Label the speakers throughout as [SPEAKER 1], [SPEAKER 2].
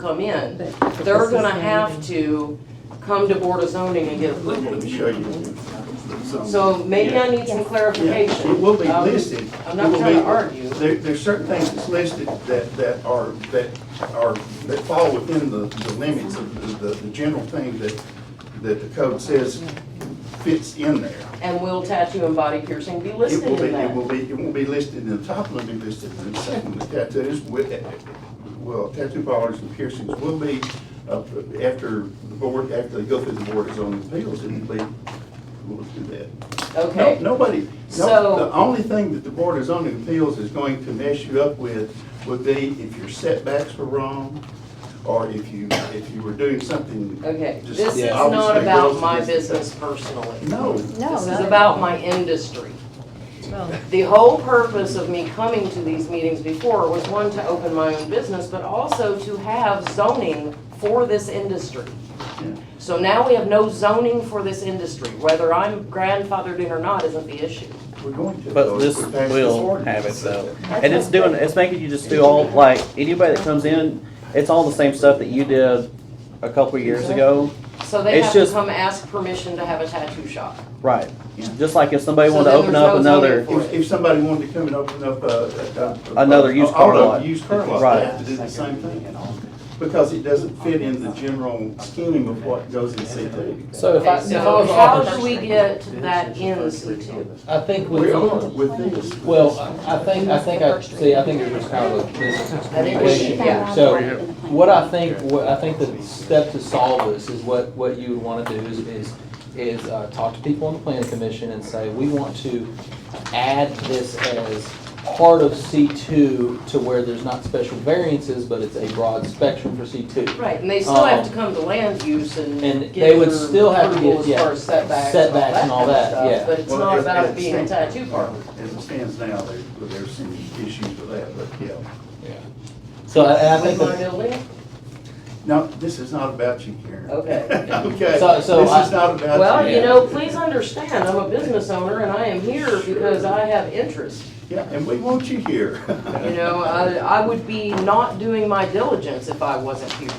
[SPEAKER 1] come in,
[SPEAKER 2] But
[SPEAKER 1] they're
[SPEAKER 2] this is
[SPEAKER 1] gonna
[SPEAKER 2] the
[SPEAKER 1] have
[SPEAKER 2] meeting.
[SPEAKER 1] to come to Board of Zoning and get
[SPEAKER 3] Let me
[SPEAKER 1] approval.
[SPEAKER 3] show you. some-
[SPEAKER 1] So maybe I need some
[SPEAKER 3] Yeah,
[SPEAKER 1] clarification.
[SPEAKER 3] It will be
[SPEAKER 1] Um,
[SPEAKER 3] listed.
[SPEAKER 1] I'm
[SPEAKER 3] It
[SPEAKER 1] not
[SPEAKER 3] will
[SPEAKER 1] trying to
[SPEAKER 3] be-
[SPEAKER 1] argue.
[SPEAKER 3] There, there's certain things that's listed that, that are, that are, that fall within the, the limits of the, the, the general thing that, that the code says fits in there.
[SPEAKER 1] And will tattoo and body piercing be
[SPEAKER 3] It
[SPEAKER 1] listed
[SPEAKER 3] will be,
[SPEAKER 1] in
[SPEAKER 3] it will
[SPEAKER 1] that?
[SPEAKER 3] be, it won't be listed in the top, it'll be listed in the second, the tattoos with, well, tattoo parlors and piercings will be, uh, after the board, after they go through the board of zoning appeals, it will be, we'll do that. No,
[SPEAKER 1] Okay,
[SPEAKER 3] nobody,
[SPEAKER 1] So-
[SPEAKER 3] no, the only thing that the Board of Zoning Appeals is going to mess you up with would be if your setbacks were wrong, or if you, if you were doing something.
[SPEAKER 1] okay.
[SPEAKER 3] just
[SPEAKER 1] This is not
[SPEAKER 3] obviously
[SPEAKER 1] about
[SPEAKER 3] goes
[SPEAKER 1] my
[SPEAKER 3] against the-
[SPEAKER 1] business personally.
[SPEAKER 3] No,
[SPEAKER 2] No,
[SPEAKER 1] This is
[SPEAKER 2] not-
[SPEAKER 1] about my industry.
[SPEAKER 2] well,
[SPEAKER 1] The whole purpose of me coming to these meetings before was one, to open my own business, but also to have zoning for this industry.
[SPEAKER 3] Yeah.
[SPEAKER 1] So now we have no zoning for this industry. Whether I'm grandfathered in or not isn't the issue.
[SPEAKER 3] we're going to.
[SPEAKER 4] But this
[SPEAKER 3] We're passing this
[SPEAKER 4] will
[SPEAKER 3] ordinance.
[SPEAKER 4] have it though. And it's doing, it's making you just do all, like, anybody that comes in, it's all the same stuff that you did a couple of years ago.
[SPEAKER 1] So they
[SPEAKER 4] It's
[SPEAKER 1] have to
[SPEAKER 4] just-
[SPEAKER 1] come ask permission to have a tattoo shop.
[SPEAKER 4] Right.
[SPEAKER 3] Yeah.
[SPEAKER 4] Just like if somebody
[SPEAKER 1] So
[SPEAKER 4] wanted to
[SPEAKER 1] then
[SPEAKER 4] open
[SPEAKER 1] there's
[SPEAKER 4] up
[SPEAKER 1] no zoning
[SPEAKER 4] another,
[SPEAKER 1] for
[SPEAKER 3] If, if somebody wanted to come and open up a.
[SPEAKER 4] Another used car lot.
[SPEAKER 3] Used car lot,
[SPEAKER 4] Right.
[SPEAKER 3] they have to do the same thing, because it doesn't fit in the general scheme of what goes in C two.
[SPEAKER 5] So if I, if I
[SPEAKER 1] So
[SPEAKER 5] was
[SPEAKER 1] how
[SPEAKER 5] offered,
[SPEAKER 1] do we get that in C two?
[SPEAKER 5] I think
[SPEAKER 3] We
[SPEAKER 5] with,
[SPEAKER 3] are with this.
[SPEAKER 5] well, I I think, I think I, see, I think it was kind of a
[SPEAKER 1] I think we should-
[SPEAKER 5] miscommunication.
[SPEAKER 1] yeah.
[SPEAKER 5] So what I think, what I think the step to solve this is what, what you would want to do is, is, is uh, talk to people on the planning commission and say, we want to add this as part of C two to where there's not special variances, but it's a broad spectrum for C two.
[SPEAKER 1] Right, and they still have to
[SPEAKER 5] Um,
[SPEAKER 1] come to land use and
[SPEAKER 5] and
[SPEAKER 1] get
[SPEAKER 5] they would
[SPEAKER 1] your
[SPEAKER 5] still have to
[SPEAKER 1] approval
[SPEAKER 5] get-
[SPEAKER 1] as
[SPEAKER 5] yeah,
[SPEAKER 1] far as setbacks
[SPEAKER 5] setbacks and all
[SPEAKER 1] kind of
[SPEAKER 5] that,
[SPEAKER 1] stuff,
[SPEAKER 5] yeah.
[SPEAKER 1] But it's
[SPEAKER 3] Well,
[SPEAKER 1] not
[SPEAKER 3] as-
[SPEAKER 1] about
[SPEAKER 3] as
[SPEAKER 1] it being a
[SPEAKER 3] stands-
[SPEAKER 1] tattoo parlor.
[SPEAKER 3] As it stands now, there, there's some issues with that, but yeah.
[SPEAKER 5] So I, and I
[SPEAKER 1] With
[SPEAKER 5] think that.
[SPEAKER 1] my building?
[SPEAKER 3] No, this is not about you, Karen.
[SPEAKER 1] Okay.
[SPEAKER 3] Okay,
[SPEAKER 5] So-
[SPEAKER 3] this
[SPEAKER 5] so
[SPEAKER 3] is
[SPEAKER 5] I-
[SPEAKER 3] not about you.
[SPEAKER 1] Well, you
[SPEAKER 5] Yeah.
[SPEAKER 1] know, please understand, I'm a business owner and I am here because I have interest.
[SPEAKER 3] Yeah, and we want you here.
[SPEAKER 1] You know, I, I would be not doing my diligence if I wasn't here.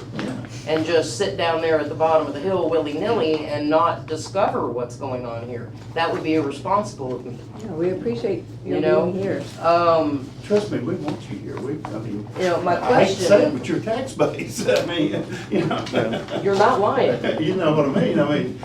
[SPEAKER 1] And just sit down there at the bottom of the hill willy-nilly and not discover what's going on here. That would be irresponsible of me.
[SPEAKER 2] yeah, we appreciate
[SPEAKER 1] You
[SPEAKER 2] you
[SPEAKER 1] know?
[SPEAKER 2] being here.
[SPEAKER 1] Um,
[SPEAKER 3] Trust me, we want you here, we, I mean.
[SPEAKER 1] You know, my
[SPEAKER 3] I hate to say it,
[SPEAKER 1] question-
[SPEAKER 3] but your tax base, I mean, you know,
[SPEAKER 1] you're not lying.
[SPEAKER 3] you know what I mean, I mean.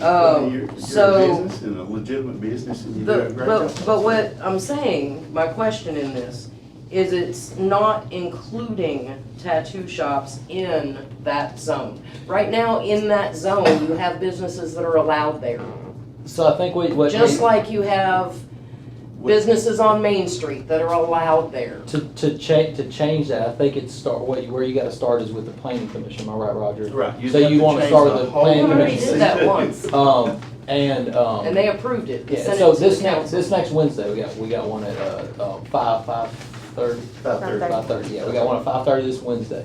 [SPEAKER 1] Um,
[SPEAKER 3] you're- you're a
[SPEAKER 1] so-
[SPEAKER 3] business and a legitimate business and you do a
[SPEAKER 1] The,
[SPEAKER 3] great job.
[SPEAKER 1] but, but what I'm saying, my question in this, is it's not including tattoo shops in that zone. Right now, in that zone, you have businesses that are allowed there,
[SPEAKER 5] So I think what, what.
[SPEAKER 1] just like you have businesses on Main Street that are allowed there.
[SPEAKER 5] To, to cha, to change that, I think it's start, what, you- where you gotta start is with the planning commission, am I right, Roger?
[SPEAKER 3] Right, you'd
[SPEAKER 5] So
[SPEAKER 3] have
[SPEAKER 5] you
[SPEAKER 3] to
[SPEAKER 5] wanna
[SPEAKER 3] change
[SPEAKER 5] start
[SPEAKER 3] the
[SPEAKER 5] with the
[SPEAKER 3] whole-
[SPEAKER 1] We
[SPEAKER 5] planning
[SPEAKER 1] already
[SPEAKER 5] commission.
[SPEAKER 1] did that once,
[SPEAKER 5] Um, and, um.
[SPEAKER 1] and they approved it,
[SPEAKER 5] Yeah,
[SPEAKER 1] sent
[SPEAKER 5] so
[SPEAKER 1] it to
[SPEAKER 5] this
[SPEAKER 1] the
[SPEAKER 5] next,
[SPEAKER 1] council.
[SPEAKER 5] this next Wednesday, we got, we got one at, uh, uh, five, five thirty,
[SPEAKER 3] About there.
[SPEAKER 5] five thirty, yeah, we got one at five thirty this Wednesday.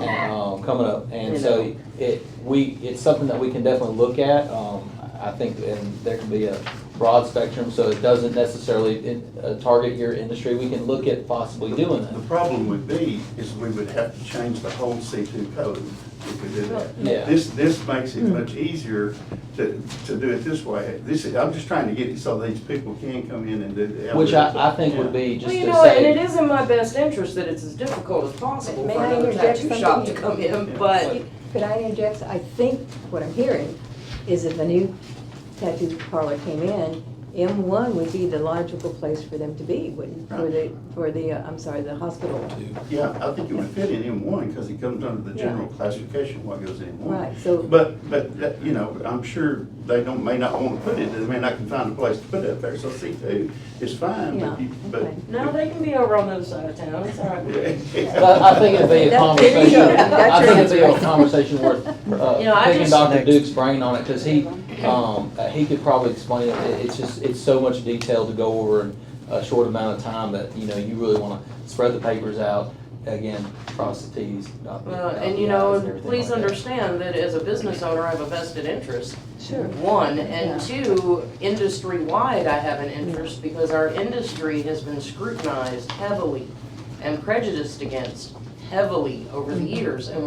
[SPEAKER 5] And, um, coming up, and
[SPEAKER 1] You
[SPEAKER 5] so
[SPEAKER 1] know.
[SPEAKER 5] it, we, it's something that we can definitely look at, um, I think, and there can be a broad spectrum, so it doesn't necessarily, uh, target your industry, we can look at possibly doing that.
[SPEAKER 3] The problem would be, is we would have to change the whole C two code if we did that.
[SPEAKER 5] Yeah.
[SPEAKER 3] This, this makes it much easier to, to do it this way. This, is- I'm just trying to get it so these people can come in and do the.
[SPEAKER 5] Which I, I think would
[SPEAKER 3] Yeah.
[SPEAKER 5] be just
[SPEAKER 1] Well,
[SPEAKER 5] to
[SPEAKER 1] you know, and it
[SPEAKER 5] say,
[SPEAKER 1] is in my best interest that it's as difficult as possible
[SPEAKER 2] May
[SPEAKER 1] for
[SPEAKER 2] I
[SPEAKER 1] another
[SPEAKER 2] interject
[SPEAKER 1] tattoo shop to
[SPEAKER 2] something?
[SPEAKER 1] come in,
[SPEAKER 3] Yeah.
[SPEAKER 1] but
[SPEAKER 2] Could I interject? I think what I'm hearing is if a new tattoo parlor came in, M1 would be the logical place for them to be, wouldn't, for the, for the, uh, I'm sorry, the hospital.
[SPEAKER 3] Yeah, I think it would fit in M one, because it comes under the
[SPEAKER 2] Yeah.
[SPEAKER 3] general classification, what goes in M one.
[SPEAKER 2] Right, so-
[SPEAKER 3] But, but, that- you know, I'm sure they don't, may not want to put it, they may not can find a place to put it up there, so C two is fine, but you,
[SPEAKER 2] Yeah,
[SPEAKER 3] but.
[SPEAKER 2] okay.
[SPEAKER 1] no, they can be over on the other side of town, it's all right.
[SPEAKER 5] but I think it'd be a
[SPEAKER 2] That- there you
[SPEAKER 5] conversation,
[SPEAKER 2] go.
[SPEAKER 5] I
[SPEAKER 2] That's
[SPEAKER 5] think it'd
[SPEAKER 2] your
[SPEAKER 5] be a conversation worth,
[SPEAKER 1] You know,
[SPEAKER 5] uh,
[SPEAKER 1] I
[SPEAKER 5] picking
[SPEAKER 1] just-
[SPEAKER 5] Dr. Duke's brain on it, cause he, um, uh, he could probably explain it, It- it's just, it's so much detail to go over in a short amount of time that, you know, you really wanna spread the papers out, again, cross the Ts, dot the
[SPEAKER 1] Well,
[SPEAKER 5] dot
[SPEAKER 1] Uh, and
[SPEAKER 5] the
[SPEAKER 1] you know,
[SPEAKER 5] Is
[SPEAKER 1] and
[SPEAKER 5] and everything
[SPEAKER 1] please
[SPEAKER 5] like that.
[SPEAKER 1] understand that as a business owner, I have a vested interest.
[SPEAKER 2] Sure.
[SPEAKER 1] One, and two, industry-wide, I have an interest because our industry has been scrutinized heavily and prejudiced against. heavily over the years, and